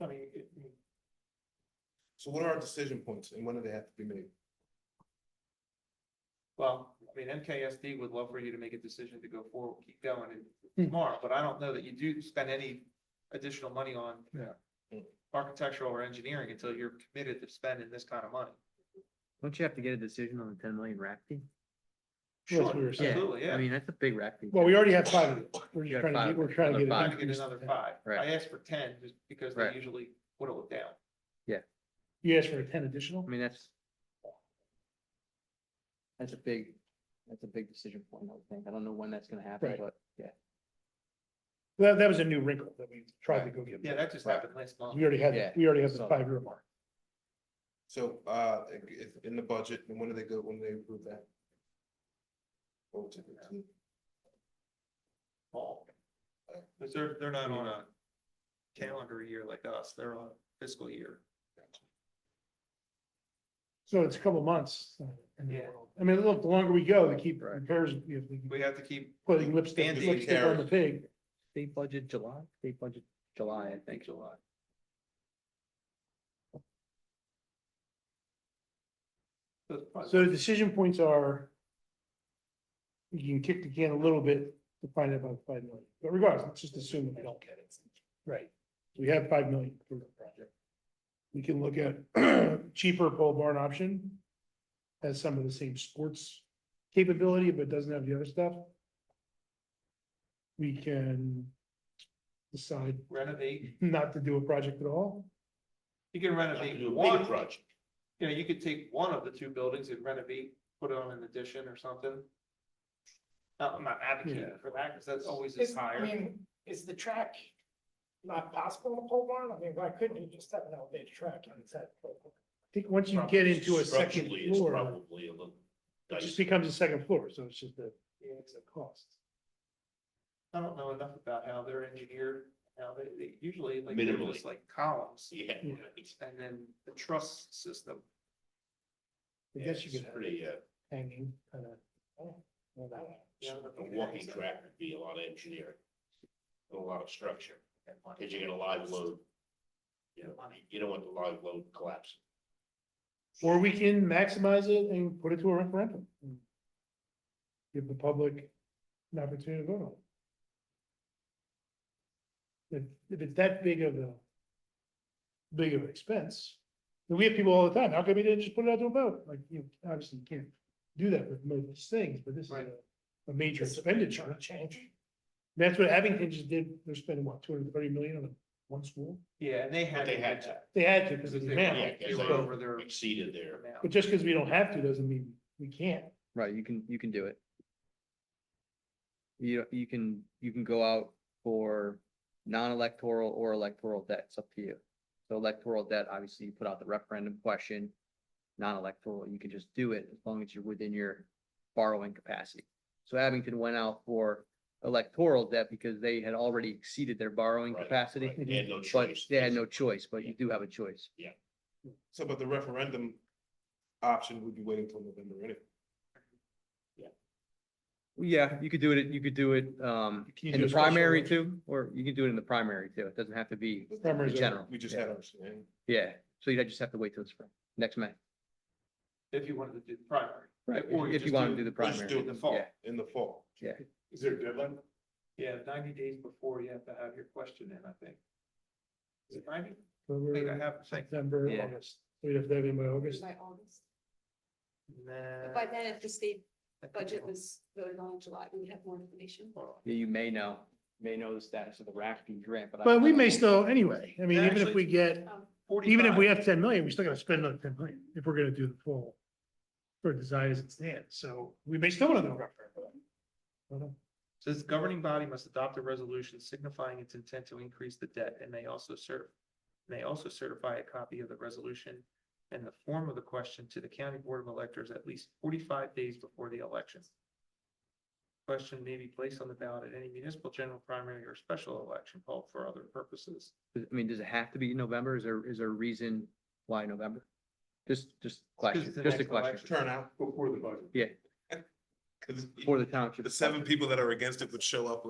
I mean, it, it- So what are our decision points and when do they have to be made? Well, I mean, MKSD would love for you to make a decision to go forward, keep going and tomorrow, but I don't know that you do spend any additional money on. Yeah. Architectural or engineering until you're committed to spending this kind of money. Don't you have to get a decision on the ten million rack fee? Well, that's what we were saying. Absolutely, I yeah. mean, that's a big rack fee. well, we already have five of it. We're You just got trying to five. get, we're trying to Another get. it Trying five. to get increased. another five. Right. I asked for ten just because they Right. usually whittle it down. You asked for a ten additional? I mean, that's. That's a big, that's a big decision point, I would think. I don't know when that's gonna happen, Right. but yeah. That, that was a new wrinkle that we tried to go get. Yeah, that just Right. happened last month. We already had, Yeah. the- we already have the So- five year mark. So, uh, if- in the budget, and when do they go, when do they approve that? Oh, it's- it's- fall. Because they're, they're not on a calendar year like us, they're on fiscal year. So it's a couple months. uh, in the Yeah. world. I mean, look, the longer we go, the keep Right. repairs, if we We can, have to keep, putting lipstick, Band-Aid lipstick on the pig. State budget July, state budget July, I think. July. So the decision points are. You can kick the can a little bit to find out about five million, but regardless, let's just assume that we don't get it. Right. We have five million for the project. We can look at cheaper pole barn option. Has some of the same sports capability, but doesn't have the other stuff. We can. Decide renovate, not to do a project at all. you can Have to do renovate a one, big project. you know, you could take one of the two buildings and renovate, put on an addition or something. Uh, I'm not advocating for that, because that's always is Is, I higher, mean, is the track not possible in a pole barn? I mean, why couldn't you just have an elevated track and set? I think once you get into a second Structurally, it's floor, Probably a little. it just dicey. becomes a second floor, so it's just a, it's a cost. I don't know enough about how they're engineered, how they, they usually like, they're Minimally. just like columns. Yeah. Yeah. it's- And then the truss system, I guess you it's could have Pretty, uh, hanging kind of. Yeah, a but- walking track would be a lot of engineering. and A lot of structure, cause you get a live load. You know, you don't want the live load collapsing. Or we can maximize it and put it to a referendum. and Give the public an opportunity to vote on it. If, if it's that big of a, big of an expense, and we have people all the time, how come we didn't just put it out to a vote? Like, you know, obviously you can't do that with most things, but this is a, a major expenditure. Change. That's what Abington just did, they're spending what, two hundred and thirty million on one school? yeah, and they had. But they to had do to. that, They had to, because Because of if the they amount. Yeah, 'cause were they- over their Exceeded there. amount. But just because we don't have to doesn't mean we can't. Right, you can, you can do it. You, you can, you can go out for non-electoral or electoral debt, it's up to you. So electoral debt, obviously, you put out the referendum question. Non-electoral, you can just do it as long as you're within your borrowing capacity. So Abington went out for electoral debt because they had already exceeded their borrowing Right, capacity. right. They had no But choice. they had no choice, but you do have a choice. So, but the referendum option would be waiting till November anyway. Yeah, you could do it, you could do it, um, Can you in do a the special primary election? too, or you can do it in the primary too. It doesn't have to be, Primaries In are- general. We just Yeah. had our, saying. yeah, so you just have to wait till the spring, next May. If you wanted to do the primary. If Or you- if you want to do the Let's do it in primary. the Yeah. fall, in the fall. Is there a deadline? Yeah, ninety days before you have to have your question in, I think. Is it ninety? But I think I we're have, I think. September, Yeah. August, we'd have to have it by August. By August. Nah. But by then, if the state I think budget I'll- was voted on in July, we would have more information. well, Yeah, you may know, may know the status of the RACP grant, but. I- But we may still, anyway, I mean, even if Actually- we get, Um, even if we 45. have ten million, we still gotta spend another ten million if we're gonna do the full. For design as it stands, so we may still want to know. Says governing body must adopt a resolution signifying its intent to increase the debt and may also serve. May also certify a copy of the resolution and the form of the question to the county board of electors at least forty-five days before the election. Question may be placed on the ballot at any municipal general primary or special election called for other purposes. I mean, does it have to be November? Is there, is there a reason why November? Just, just it's question, the just a next question election. Turnout. Before the budget. Cause for the township. the seven people that are against it would show up